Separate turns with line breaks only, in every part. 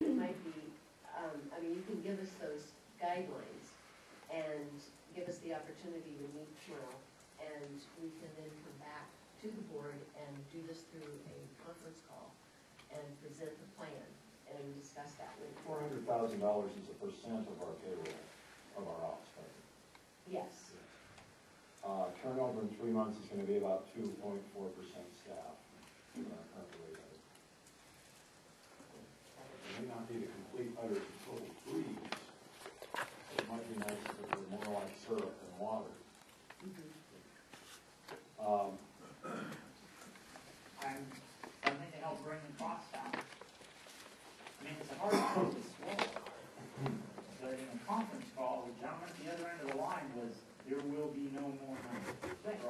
It might be, um, I mean, you can give us those guidelines and give us the opportunity to meet tomorrow. And we can then come back to the board and do this through a conference call and present the plan and discuss that with. the
Four
board.
hundred thousand dollars is a percent of our payroll, of our ops budget.
Yes,
Uh, turnover in three months is gonna be about two point four percent staff. uh, current rate of it. It may not be the complete utter and total freeze. It might be nice if it were more like syrup than water.
Mhm.
Mm-hmm.
Um,
I'm, something to help bring the cost down. I mean, it's a hard pill to swallow. But in a conference call, the gentleman at the other end of the line was, there will be no more money. Right.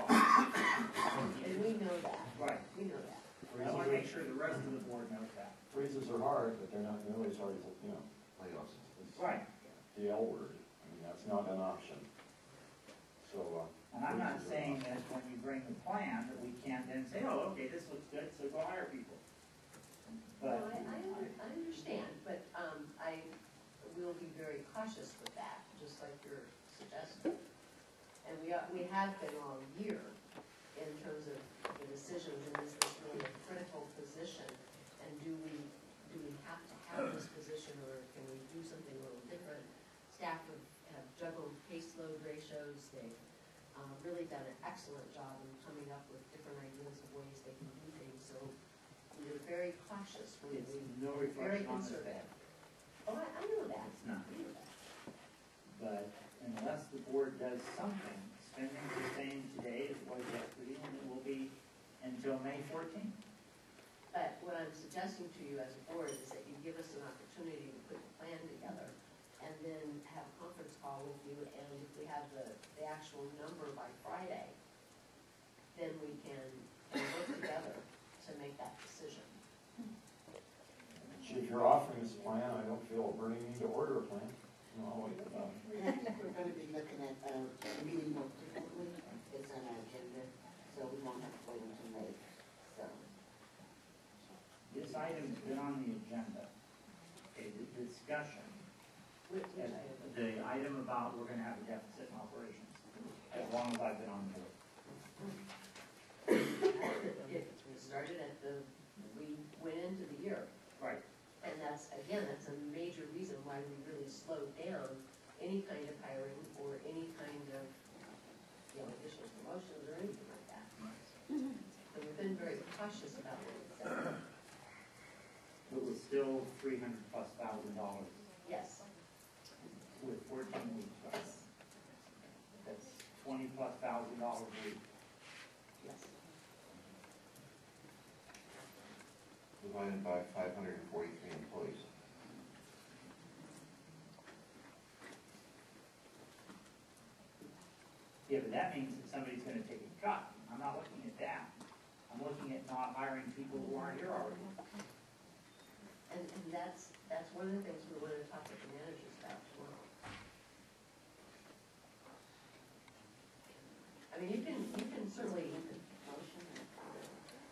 and we know that,
Right.
we know that.
I wanna make
freezes,
sure the rest of the board knows that.
freezes are hard, but they're not nearly as hard as, you know,
Playoffs.
it's
Right,
the L word. I mean, that's not an option. So, uh.
and I'm not
freezes are
saying
not-
that when you bring the plan, that we can't then say, oh, okay, this looks good, so go hire people.
Well,
But,
I, I, under- I understand, but, um, I will be very cautious with that, just like you're suggesting. And we are, we have been all year in terms of the decisions, and is this really a critical position? And do we, do we have to have this position, or can we do something a little different? Staff have have juggled caseload ratios, they've, um, really done an excellent job in coming up with different ideas of ways they can do things, so we are very cautious, we,
it's
we
no
very
reflection on the
conservative.
staff.
Oh, I, I know that.
It's not.
I know that.
But unless the board does something, spending the same today as it was yesterday, and it will be until May fourteenth.
But what I'm suggesting to you as a board is that you give us an opportunity to put the plan together and then have a conference call with you, and if we have the, the actual number by Friday, then we can work together to make that decision.
If you're offering this plan, I don't feel a burning need to order a plan. You know, I'll wait for that.
I think we're gonna be looking at, uh, meeting more frequently, it's on our agenda, so we won't have to wait until May, so.
This item's been on the agenda, okay, the discussion,
Which,
and
which I,
the item about we're gonna have a deficit in operations, as long as I've been on board.
it started at the, we went into the year.
Right,
And that's, again, that's a major reason why we really slowed down any kind of hiring or any kind of, you know, additional promotions or anything like that. So we've been very cautious about what we said.
it was still three hundred plus thousand dollars
Yes,
with fourteen weeks. right? That's twenty plus thousand dollars a week.
yes.
Divided by five hundred and forty-three employees.
Yeah, but that means that somebody's gonna take a cut. I'm not looking at that. I'm looking at not hiring people who aren't here already.
And, and that's, that's one of the things we wanted to talk with the managers about tomorrow. I mean, you can, you can certainly,
Motion,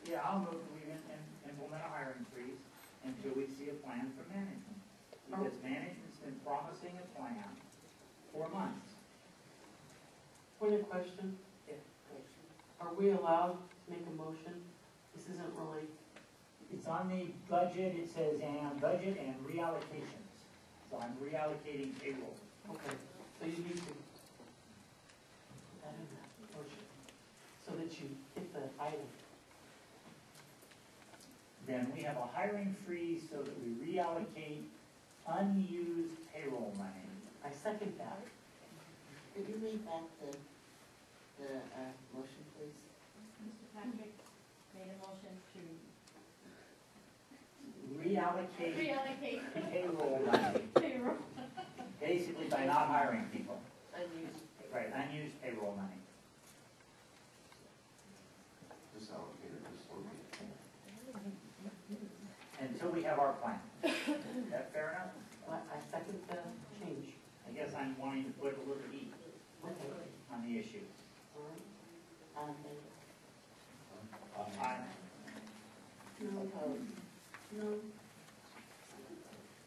Yeah, I'll move that we im- im- implement a hiring freeze until we see a plan from management. Because management's been promising a plan for months.
Point of question,
motion,
are we allowed to make a motion? This isn't really,
It's on the budget, it says, and budget and reallocations. So I'm reallocating payroll.
okay, so you need to put that in that motion, so that you hit the item.
Then we have a hiring freeze so that we reallocate unused payroll money.
I second that.
could you read back the, the, uh, motion, please?
Mr. Patrick made a motion to
Reallocate
reallocate
payroll money.
payroll.
Basically by not hiring people,
unused.
right, unused payroll money.
Disallocated, dislocated.
Until we have our plan. Is that fair enough?
I I second the change.
I guess I'm wanting to put a little heat
Okay,
uh,
on the issue.
All right, all in favor?
Um,
I,
No opposed? No